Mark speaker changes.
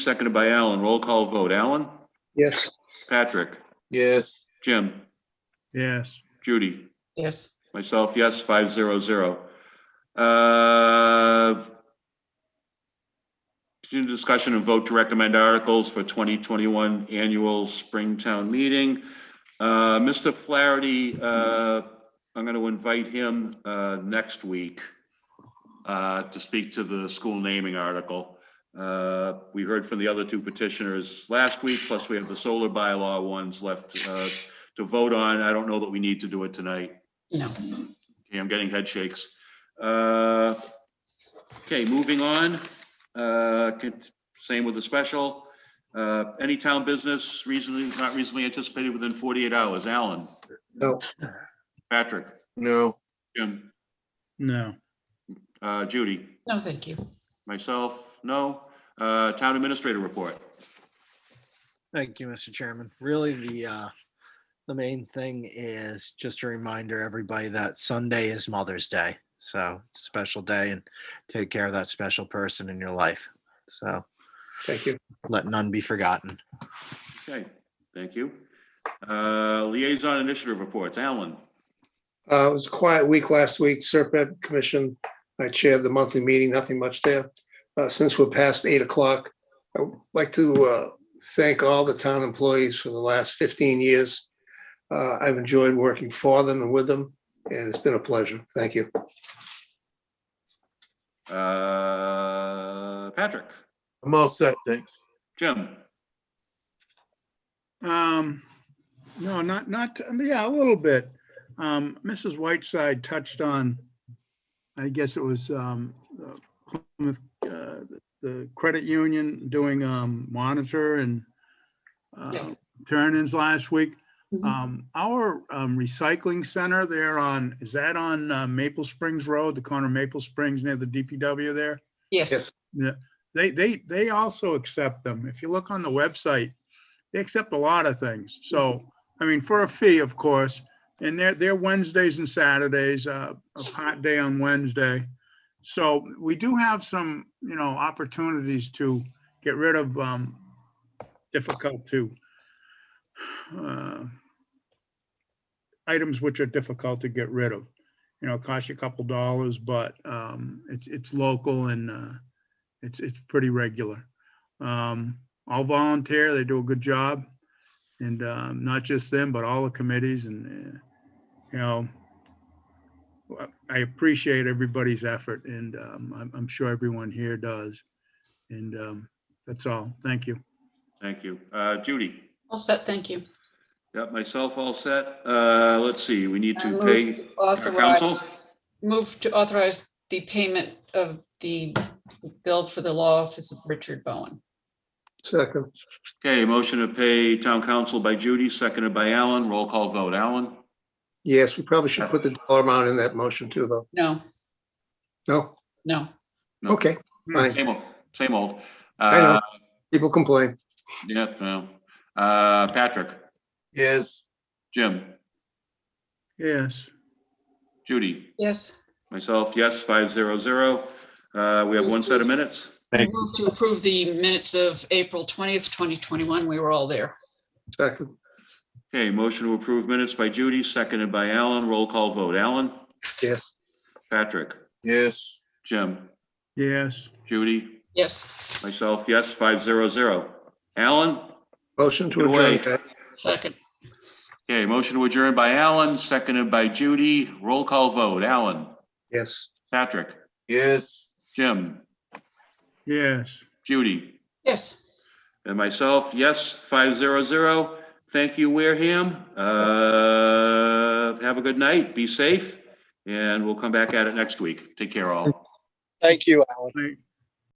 Speaker 1: Seconded by Alan. Roll call vote. Alan?
Speaker 2: Yes.
Speaker 1: Patrick?
Speaker 3: Yes,
Speaker 1: Jim?
Speaker 4: Yes,
Speaker 1: Judy?
Speaker 5: Yes,
Speaker 1: Myself, yes, five zero zero. Uh, Continued discussion and vote to recommend articles for 2021 annual Springtown meeting. Uh, Mr. Flaherty, uh, I'm going to invite him uh, next week uh, to speak to the school naming article. Uh, We heard from the other two petitioners last week, plus we have the solar bylaw ones left uh, to vote on. I don't know that we need to do it tonight.
Speaker 5: no,
Speaker 1: Okay, I'm getting head shakes. Uh, Okay, moving on. Uh, con- Same with the special. Uh, Any town business reasonably, not reasonably anticipated within 48 hours. Alan?
Speaker 2: No.
Speaker 1: Patrick?
Speaker 3: no,
Speaker 1: Jim?
Speaker 4: no,
Speaker 1: Uh, Judy?
Speaker 5: no, thank you.
Speaker 1: Myself? No? Uh, Town administrator report?
Speaker 6: Thank you, Mr. Chairman. Really, the, uh, the main thing is just a reminder, everybody, that Sunday is Mother's Day. So it's a special day and take care of that special person in your life. So
Speaker 2: Thank you.
Speaker 6: let none be forgotten.
Speaker 1: Okay, thank you. Uh, Liaison initiative reports. Alan?
Speaker 2: Uh, it was a quiet week last week, Serpent Commission. I chaired the monthly meeting, nothing much there. Uh, since we're past eight o'clock, I'd like to, uh, thank all the town employees for the last fifteen years. Uh, I've enjoyed working for them and with them, and it's been a pleasure. Thank you.
Speaker 1: Uh, Patrick?
Speaker 3: I'm all set, thanks.
Speaker 1: Jim?
Speaker 4: um, no, not, not, yeah, a little bit. Um, Mrs. Whiteside touched on, I guess it was, um, the Plymouth, uh, the credit union doing, um, monitor and uh,
Speaker 5: Yeah.
Speaker 4: turn-ins last week.
Speaker 5: Mhm.
Speaker 4: Um, our, um, recycling center there on, is that on uh, Maple Springs Road, the corner of Maple Springs near the DPW there?
Speaker 5: Yes,
Speaker 2: Yes.
Speaker 4: they they they also accept them. If you look on the website, they accept a lot of things. So, I mean, for a fee, of course, and they're they're Wednesdays and Saturdays, uh, a hot day on Wednesday. So we do have some, you know, opportunities to get rid of um difficult to uh items which are difficult to get rid of. You know, it costs you a couple dollars, but um it's it's local and uh it's, it's pretty regular. Um, all volunteer, they do a good job. And, um, not just them, but all the committees and, uh, you know, I appreciate everybody's effort and, um, I'm, I'm sure everyone here does. And, um, that's all. Thank you.
Speaker 1: Thank you. Uh, Judy?
Speaker 5: all set, thank you.
Speaker 1: Got myself all set. Uh, let's see, we need
Speaker 5: I
Speaker 1: to
Speaker 5: move
Speaker 1: pay.
Speaker 5: to authorize-
Speaker 1: counsel?
Speaker 5: Move to authorize the payment of the bill for the law office of Richard Bowen.
Speaker 2: Second,
Speaker 1: Okay, motion to pay town council by Judy, seconded by Alan. Roll call vote. Alan?
Speaker 2: yes, we probably should put the dollar amount in that motion too, though.
Speaker 5: No,
Speaker 2: No?
Speaker 5: no,
Speaker 1: No.
Speaker 2: Okay, fine.
Speaker 1: Same old, same old.
Speaker 2: I know.
Speaker 1: Uh,
Speaker 2: People complain.
Speaker 1: yep, no. Uh, Patrick,
Speaker 3: Yes,
Speaker 1: Jim,
Speaker 4: Yes.
Speaker 1: Judy,
Speaker 5: yes.
Speaker 1: myself, yes, five zero zero. Uh, we have one set of minutes.
Speaker 5: Move to approve the minutes of April 20th, 2021. We were all there.
Speaker 2: Second,
Speaker 1: Okay, motion to approve minutes by Judy, seconded by Alan. Roll call vote. Alan?
Speaker 2: Yes.
Speaker 1: Patrick,
Speaker 3: yes,
Speaker 1: Jim,
Speaker 4: Yes.
Speaker 1: Judy,
Speaker 5: Yes,
Speaker 1: myself, yes, five zero zero. Alan?
Speaker 2: motion to
Speaker 1: Get away.
Speaker 2: adjourn.
Speaker 5: second,
Speaker 1: Okay, motion to adjourn by Alan, seconded by Judy. Roll call vote. Alan?
Speaker 2: Yes.
Speaker 1: Patrick?
Speaker 3: yes.
Speaker 1: Jim?
Speaker 4: Yes.
Speaker 1: Judy?
Speaker 5: yes.
Speaker 1: And myself, yes, 500. Thank you, Wareham. Uh, Have a good night, be safe, and we'll come back at it next week. Take care all.
Speaker 6: Thank you, Alan.
Speaker 4: Thank-